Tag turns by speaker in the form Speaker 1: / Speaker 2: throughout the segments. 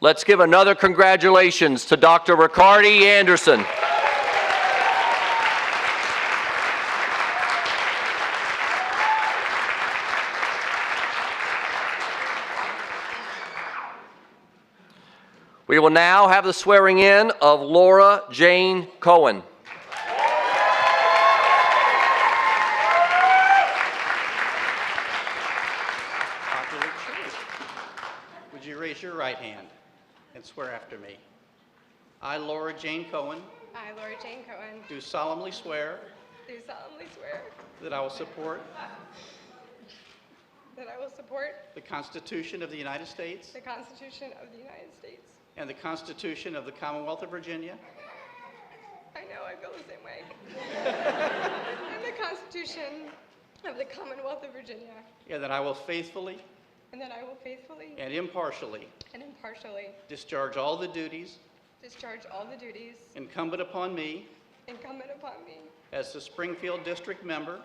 Speaker 1: Let's give another congratulations to Dr. Ricardi Anderson. We will now have the swearing in of Laura Jane Cohen.
Speaker 2: popular choice. Would you raise your right hand and swear after me? I, Laura Jane Cohen,
Speaker 3: I, Laura Jane Cohen,
Speaker 2: do solemnly swear
Speaker 3: do solemnly swear
Speaker 2: that I will support
Speaker 3: that I will support
Speaker 2: the Constitution of the United States
Speaker 3: the Constitution of the United States.
Speaker 2: and the Constitution of the Commonwealth of Virginia,
Speaker 3: I know I feel the same way. and the Constitution of the Commonwealth of Virginia.
Speaker 2: and that I will faithfully
Speaker 3: And that I will faithfully
Speaker 2: and impartially
Speaker 3: and impartially
Speaker 2: discharge all the duties
Speaker 3: discharge all the duties
Speaker 2: incumbent upon me
Speaker 3: incumbent upon me
Speaker 2: as the Springfield District Member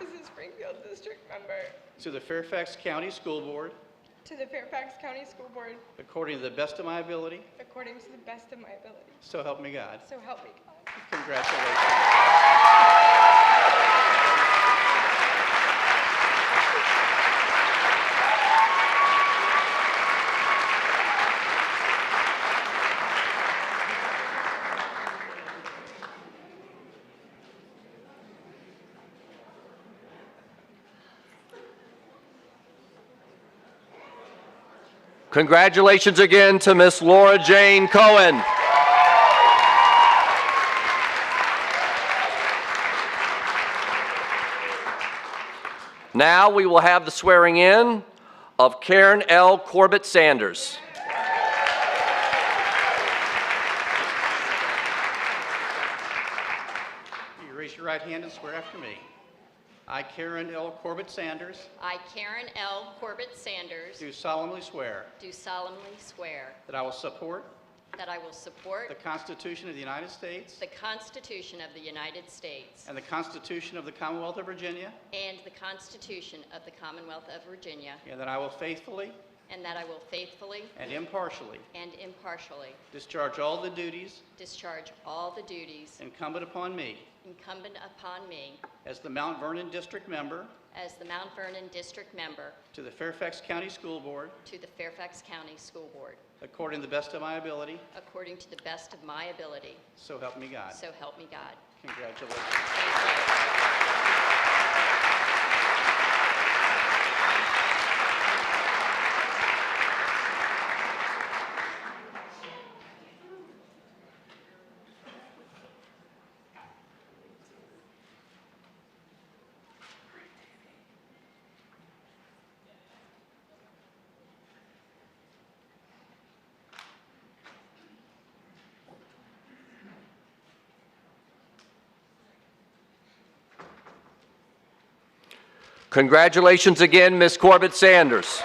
Speaker 3: as a Springfield District member
Speaker 2: to the Fairfax County School Board
Speaker 3: to the Fairfax County School Board
Speaker 2: according to the best of my ability,
Speaker 3: according to the best of my ability.
Speaker 2: so help me God.
Speaker 3: So help me God.
Speaker 2: Congratulations.
Speaker 1: Congratulations again to Miss Laura Jane Cohen. Now we will have the swearing in of Karen L. Corbett Sanders.
Speaker 2: You raise your right hand and swear after me. I, Karen L. Corbett Sanders,
Speaker 4: I, Karen L. Corbett Sanders,
Speaker 2: do solemnly swear
Speaker 4: do solemnly swear
Speaker 2: that I will support
Speaker 4: that I will
Speaker 2: the
Speaker 4: support
Speaker 2: Constitution of the United States
Speaker 4: the Constitution of the United States
Speaker 2: and the Constitution of the Commonwealth of Virginia,
Speaker 4: and the Constitution of the Commonwealth of Virginia,
Speaker 2: and that I will faithfully
Speaker 4: and that I will faithfully
Speaker 2: and impartially
Speaker 4: and impartially
Speaker 2: discharge all the duties
Speaker 4: discharge all the duties
Speaker 2: incumbent upon me
Speaker 4: incumbent upon me
Speaker 2: as the Mount Vernon District Member
Speaker 4: as the Mount Vernon District Member
Speaker 2: to the Fairfax County School Board
Speaker 4: to the Fairfax County School Board,
Speaker 2: according to the best of my ability,
Speaker 4: according to the best of my ability,
Speaker 2: so help me God.
Speaker 4: so help me God.
Speaker 2: Congratulations.
Speaker 4: Thank you.
Speaker 1: Congratulations again, Miss Corbett Sanders.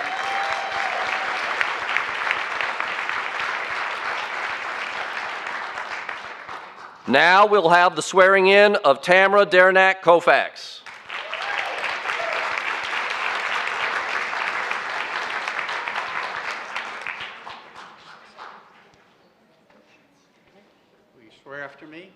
Speaker 1: Now we'll have the swearing in of Tamara Derenak Kofax.
Speaker 2: Will you swear after me?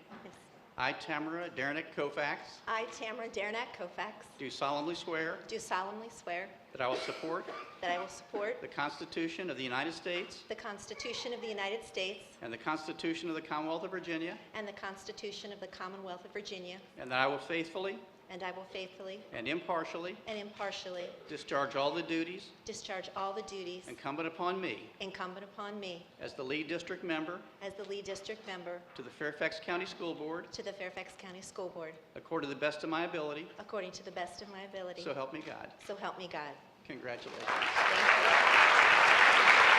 Speaker 2: I, Tamara Derenick Kofax,
Speaker 5: I, Tamara Derenak Kofax,
Speaker 2: do solemnly swear
Speaker 5: do solemnly swear
Speaker 2: that I will support
Speaker 5: that I will support
Speaker 2: The Constitution of the United States
Speaker 5: the Constitution of the United States
Speaker 2: and the Constitution of the Commonwealth of Virginia,
Speaker 5: and the Constitution of the Commonwealth of Virginia,
Speaker 2: and that I will faithfully
Speaker 5: and I will faithfully
Speaker 2: and impartially
Speaker 5: and impartially
Speaker 2: discharge all the duties
Speaker 5: discharge all the duties
Speaker 2: incumbent upon me
Speaker 5: incumbent upon me
Speaker 2: as the lead district member
Speaker 5: as the lead district member
Speaker 2: to the Fairfax County School Board
Speaker 5: to the Fairfax County School Board,
Speaker 2: according to the best of my ability,
Speaker 5: according to the best of my ability.
Speaker 2: so help me God.
Speaker 5: So help me God.
Speaker 2: Congratulations.
Speaker 5: Thank you.